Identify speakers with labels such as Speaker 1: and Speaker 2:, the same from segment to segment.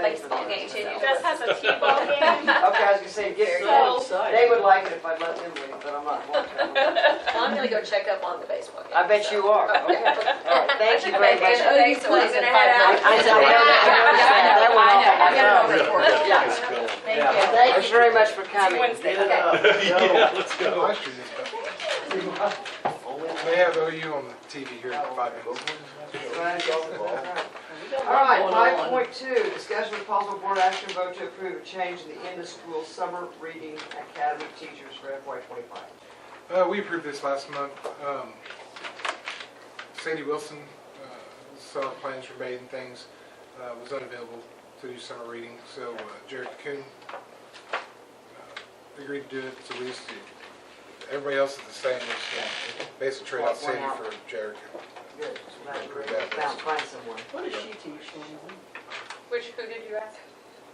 Speaker 1: obligation. It
Speaker 2: Okay,
Speaker 1: does have a T-ball game.
Speaker 2: I
Speaker 3: was gonna say, get,
Speaker 1: So-
Speaker 3: they would like it if I let them leave, but I'm not going to.
Speaker 4: Well, I'm gonna go check up on the baseball game.
Speaker 3: I bet you are, okay. All right, thank you very much.
Speaker 4: I took a vacation today, so I was in five
Speaker 3: I, I know,
Speaker 4: nights.
Speaker 3: I know, that one off on my
Speaker 4: Yeah, I know, I know, I know.
Speaker 3: phone.
Speaker 4: Thank you.
Speaker 3: Thank you very much for coming.
Speaker 5: Yeah, let's go.
Speaker 6: Last year, we have OU on the TV here in five minutes.
Speaker 3: All right, five point two, discussion with possible board action vote to approve a change in the end-of-school summer reading academy teachers for FY twenty-five.
Speaker 6: Uh, we approved this last month. Um, Sandy Wilson, uh, saw plans for bathing things, uh, was unavailable to do summer reading, so uh, Jared Coon uh, agreed to do it, so we just did. Everybody else is the same, it's uh, basically trade out Sandy for Jared Kuhn.
Speaker 3: Good, so that's great, I found, find someone.
Speaker 2: What does she teach anyway?
Speaker 1: Which, who did you ask?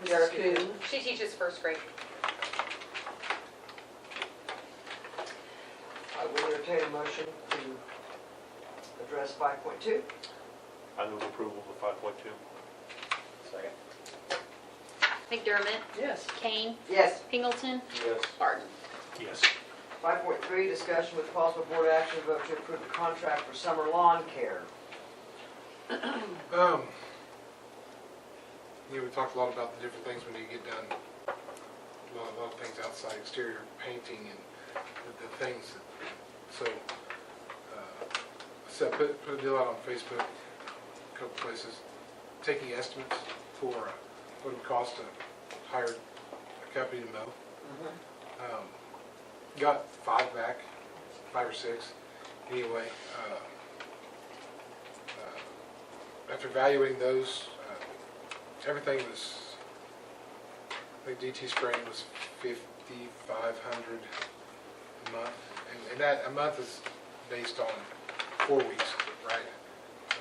Speaker 3: Yaraku.
Speaker 1: She teaches first grade.
Speaker 3: I will entertain a motion to address five point two.
Speaker 5: I move approval of five point two.
Speaker 7: McDermott,
Speaker 3: Yes.
Speaker 7: Kane,
Speaker 3: Yes.
Speaker 7: Pingleton,
Speaker 5: Yes.
Speaker 7: Barton.
Speaker 5: Yes.
Speaker 3: Five point three, discussion with possible board action vote to approve a contract for summer lawn care.
Speaker 6: Um, you know, we talked a lot about the different things we need to get done. A lot, a lot of things outside, exterior painting and the, the things that, so, uh, so I put, put a deal out on Facebook, a couple places, taking estimates for uh, what it would cost to hire a company to mow. Um, got five back, five or six, anyway, uh, uh, after evaluating those, uh, everything was, I think DT spraying was fifty-five hundred a month. And, and that, a month is based on four weeks, right? Um,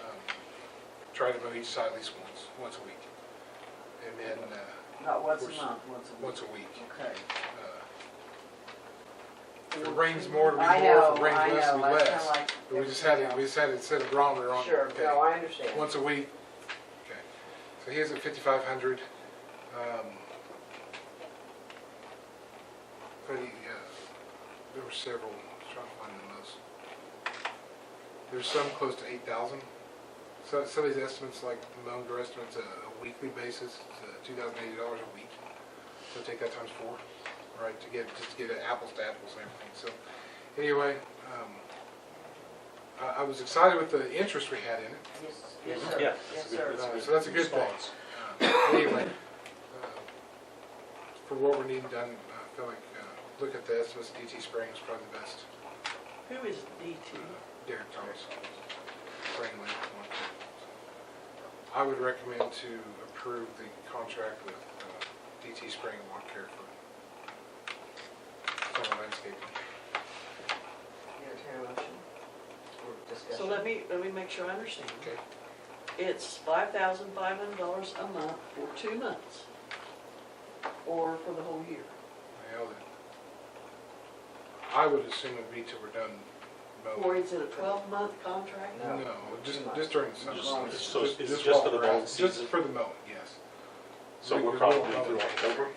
Speaker 6: Try to mow each side at least once, once a week. And then, uh,
Speaker 3: Not once a
Speaker 6: Which-
Speaker 3: month, once a week.
Speaker 6: once a week.
Speaker 3: Okay.
Speaker 6: Uh, If it rains more, it'll be
Speaker 3: I
Speaker 6: more,
Speaker 3: know,
Speaker 6: if
Speaker 3: I
Speaker 6: it rains less, it'll
Speaker 3: know,
Speaker 6: be
Speaker 3: that's kinda
Speaker 6: less.
Speaker 3: like.
Speaker 6: But we just had, it. we just had to set a barometer on.
Speaker 3: Sure,
Speaker 6: okay.
Speaker 3: no, I understand.
Speaker 6: Once a week? Okay. So he has a fifty-five hundred. um, But he, uh, there were several, I was trying to find the most. There's some close to eight thousand. So some of these estimates, like the Monger estimate's a a weekly basis, it's two thousand eighty dollars a week. So take that times four, right, to get, just to get it apples to apples and everything. So anyway, um, I, I was excited with the interest we had in it.
Speaker 3: Yes, yes, sir.
Speaker 5: Yeah.
Speaker 3: Yes, sir.
Speaker 6: Uh, So that's a good thing.
Speaker 5: response.
Speaker 6: Uh, Anyway, uh, for what we're needing done, I feel like, uh, look at the estimates, DT spraying is probably the best. uh,
Speaker 2: Who is DT?
Speaker 6: Derek Thomas, spraying lane one. I would recommend to approve the contract with uh, DT spraying and lawn care for summer landscaping.
Speaker 3: Entertain a motion for discussion.
Speaker 2: So let me, let me make sure I understand.
Speaker 6: Okay.
Speaker 2: It's five thousand five hundred dollars a month for two months, or for the whole year.
Speaker 6: Well, then, I would assume it'd be till we're done mowing.
Speaker 2: Or is it a twelve-month contract?
Speaker 3: No.
Speaker 6: No, just, just during the summer.
Speaker 3: Just- Just-
Speaker 5: so it's just
Speaker 6: while
Speaker 5: for the
Speaker 6: we're out.
Speaker 5: mowing season?
Speaker 6: Just for the mowing, yes.
Speaker 5: So
Speaker 6: We-
Speaker 5: we're
Speaker 6: we
Speaker 5: probably
Speaker 6: won't mow
Speaker 5: through
Speaker 6: it.
Speaker 5: October.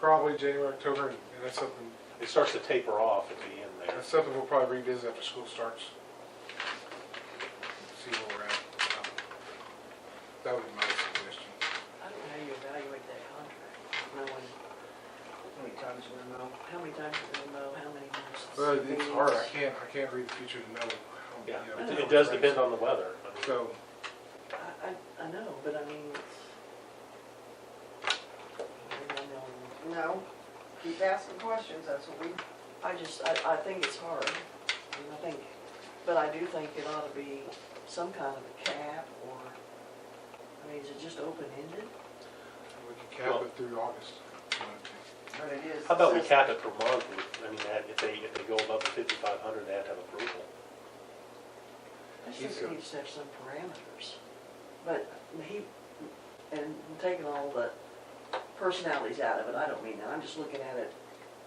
Speaker 6: Probably January, October, and and that's something,
Speaker 5: It starts to taper off at the end there.
Speaker 6: that's something we'll probably revisit after school starts. See where we're at. Um, That would be my suggestion.
Speaker 2: I don't know how you evaluate that contract, knowing
Speaker 3: How many times do we know?
Speaker 2: how many times you're gonna mow, how many months.
Speaker 6: But it's hard, I can't, I can't read the future to know. how, you
Speaker 5: Yeah,
Speaker 6: know,
Speaker 5: it-
Speaker 6: how
Speaker 5: it does
Speaker 6: it's
Speaker 5: depend
Speaker 6: raised.
Speaker 5: on the weather. I mean,
Speaker 6: So,
Speaker 2: I, I, I know, but I mean, it's. I don't know.
Speaker 3: No, keep asking questions, that's what we,
Speaker 2: I just, I, I think it's hard, and I think, but I do think it ought to be some kind of a cap, or, I mean, is it just open-ended?
Speaker 6: we can cap it through August.
Speaker 3: but it is.
Speaker 5: How about we cap it per month? I mean, that- if they, if they go above the fifty-five hundred, they have to have approval.
Speaker 2: I just
Speaker 6: He's
Speaker 2: think
Speaker 6: a-
Speaker 2: we just have some parameters, but he, and taking all the personalities out of it, I don't mean that, I'm just looking at it